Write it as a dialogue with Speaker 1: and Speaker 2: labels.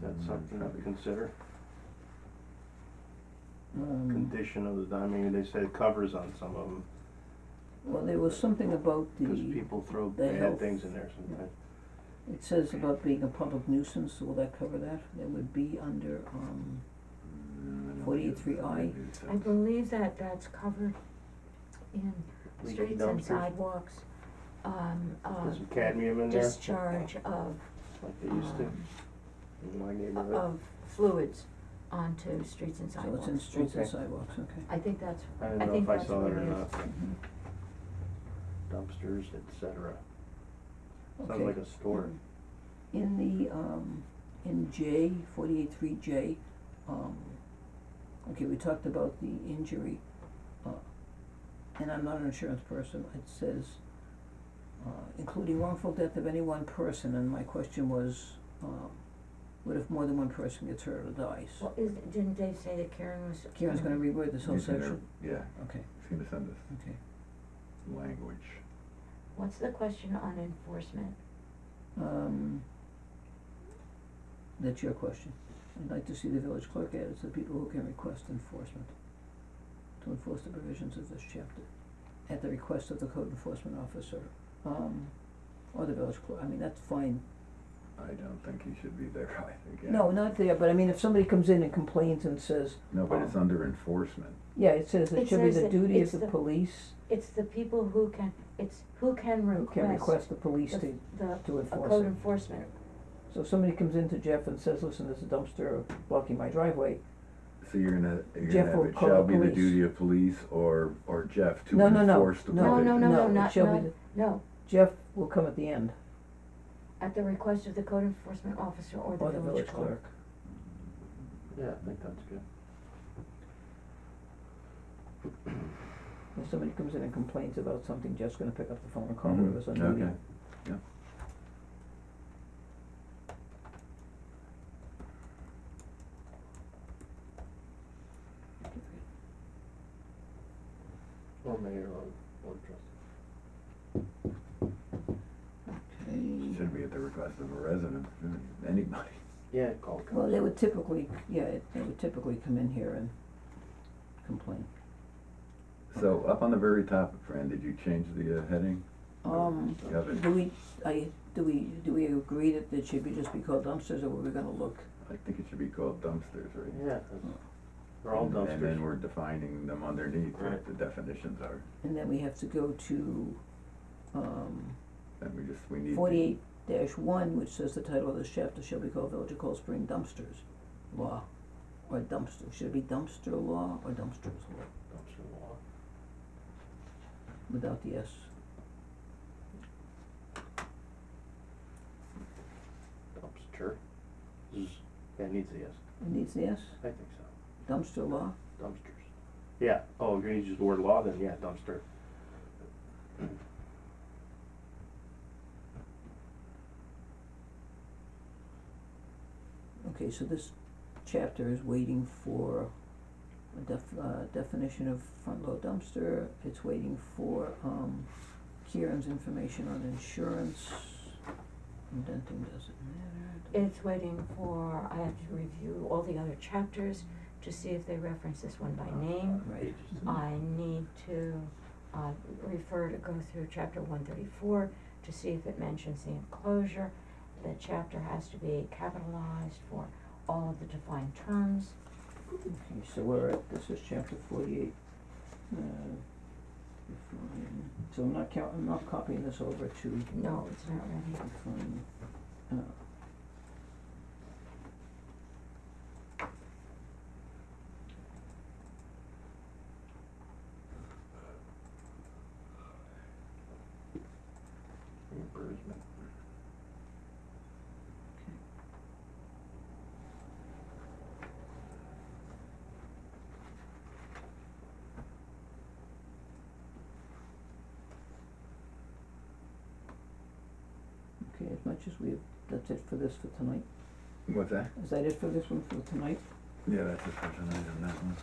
Speaker 1: That's something to consider,
Speaker 2: Um,
Speaker 1: condition of the, I mean, they said covers on some of them,
Speaker 2: well, there was something about
Speaker 1: cause
Speaker 2: the,
Speaker 1: people throw
Speaker 2: the
Speaker 1: bad
Speaker 2: health.
Speaker 1: things in there sometimes.
Speaker 2: it says about being a public nuisance, will that cover that? That would be under, um,
Speaker 1: Mm,
Speaker 2: forty-eight three I,
Speaker 3: I believe that that's covered in
Speaker 1: We get
Speaker 3: streets and
Speaker 1: dumpsters.
Speaker 3: sidewalks, um,
Speaker 1: There's
Speaker 3: of
Speaker 1: some cadmium in there,
Speaker 3: discharge of,
Speaker 1: like they used to
Speaker 3: um,
Speaker 1: in my neighborhood.
Speaker 3: of fluids onto streets and
Speaker 2: so it's in
Speaker 3: sidewalks.
Speaker 2: streets and
Speaker 1: Okay.
Speaker 2: sidewalks, okay.
Speaker 3: I think that's,
Speaker 1: I don't
Speaker 3: I
Speaker 1: know
Speaker 3: think
Speaker 1: if I
Speaker 3: that's
Speaker 1: saw
Speaker 3: what
Speaker 1: it or
Speaker 3: it is.
Speaker 1: not,
Speaker 2: Mhm.
Speaker 1: dumpsters, et cetera, sounds
Speaker 2: Okay.
Speaker 1: like a store.
Speaker 3: Mm.
Speaker 2: In the, um, in J, forty-eight three J, um, okay, we talked about the injury, uh, and I'm not an insurance person, it says, uh, including wrongful death of any one person, and my question was, um, what if more than one person gets hurt or dies?
Speaker 3: well, is, didn't Dave say that Karen was?
Speaker 2: Karen's gonna reword this whole
Speaker 4: He's gonna-
Speaker 2: section,
Speaker 4: Yeah,
Speaker 2: okay,
Speaker 4: he's gonna send us
Speaker 2: okay,
Speaker 4: language.
Speaker 3: What's the question on enforcement?
Speaker 2: um, that's your question. I'd like to see the village clerk added to the people who can request enforcement, to enforce the provisions of this chapter, at the request of the code enforcement officer, um, or the village clerk, I mean, that's fine.
Speaker 4: I don't think he should be there, I think, yeah.
Speaker 2: No, not there, but I mean, if somebody comes in and complains and says,
Speaker 4: No, but it's under enforcement.
Speaker 2: yeah, it says it
Speaker 3: It
Speaker 2: should be
Speaker 3: says
Speaker 2: the
Speaker 3: that
Speaker 2: duty of
Speaker 3: it's
Speaker 2: the
Speaker 3: the-
Speaker 2: police,
Speaker 3: It's the people who can, it's who can
Speaker 2: who
Speaker 3: request.
Speaker 2: can request the police
Speaker 3: the-
Speaker 2: to,
Speaker 3: The,
Speaker 2: to
Speaker 3: a
Speaker 2: enforce it.
Speaker 3: code enforcement,
Speaker 2: So if somebody comes in to Jeff and says, listen, there's a dumpster blocking my driveway,
Speaker 4: So you're gonna, you're
Speaker 2: Jeff
Speaker 4: gonna have
Speaker 2: will
Speaker 4: it
Speaker 2: call
Speaker 4: shall be the
Speaker 2: police.
Speaker 4: duty of police or, or Jeff to
Speaker 2: No, no, no,
Speaker 4: enforce the provision.
Speaker 3: no, no, no, no,
Speaker 2: it
Speaker 3: not,
Speaker 2: shall be
Speaker 3: no,
Speaker 2: the-
Speaker 3: no,
Speaker 2: Jeff will come at the end,
Speaker 3: at the request of the code enforcement officer or the
Speaker 2: or the
Speaker 3: village
Speaker 2: village
Speaker 3: clerk.
Speaker 2: clerk.
Speaker 1: Yeah, I think that's good.
Speaker 2: If somebody comes in and complains about something, Jeff's gonna pick up the phone and call
Speaker 4: Mhm,
Speaker 2: whoever's on duty.
Speaker 4: okay. Yeah.
Speaker 1: Or mayor or board trustee.
Speaker 2: Okay.
Speaker 4: Should be at the request of a resident, anybody.
Speaker 1: Yeah, call council.
Speaker 2: Well, they would typically, yeah, it- they would typically come in here and complain.
Speaker 4: So up on the very top, Fran, did you change the uh, heading?
Speaker 2: Um,
Speaker 4: You have it,
Speaker 2: do we, I, do we, do we agree that it should be just be called dumpsters, or were we gonna look?
Speaker 4: I think it should be called dumpsters, right?
Speaker 1: Yeah, that's- they're all
Speaker 4: And-
Speaker 1: dumpsters.
Speaker 4: And then we're defining them underneath,
Speaker 1: Right.
Speaker 4: what the definitions are,
Speaker 2: And then we have to go to, um,
Speaker 4: and we just, we need to.
Speaker 2: forty-eight dash one, which says the title of this chapter shall be called Village of Cold Spring Dumpsters Law, or dumpster, should it be dumpster law or dumpsters law,
Speaker 1: Dumpster law.
Speaker 2: without the S?
Speaker 1: Dumpster. Zzz. That needs a yes.
Speaker 2: It needs the S,
Speaker 1: I think so.
Speaker 2: dumpster law,
Speaker 1: Dumpsters. Yeah. Oh, you're gonna use the word law then? Yeah, dumpster.
Speaker 2: okay, so this chapter is waiting for a def- uh, definition of front load dumpster, it's waiting for, um, Kieran's information on insurance, indenting doesn't matter.
Speaker 3: It's waiting for, I have to review all the other chapters to see if they reference this one by name.
Speaker 2: Right.
Speaker 3: I need to, uh, refer to go through chapter one thirty-four to see if it mentions the enclosure. The chapter has to be capitalized for all of the defined terms.
Speaker 2: Okay, so we're at, this is chapter forty-eight. Uh, define- So I'm not count, I'm not copying this over to
Speaker 3: No, it's not ready.
Speaker 2: define, uh.
Speaker 1: Reimbursement.
Speaker 2: Okay, as much as we have, that's it for this for tonight.
Speaker 4: What's that?
Speaker 2: Is that it for this one for tonight?
Speaker 4: Yeah, that's it for tonight on that one.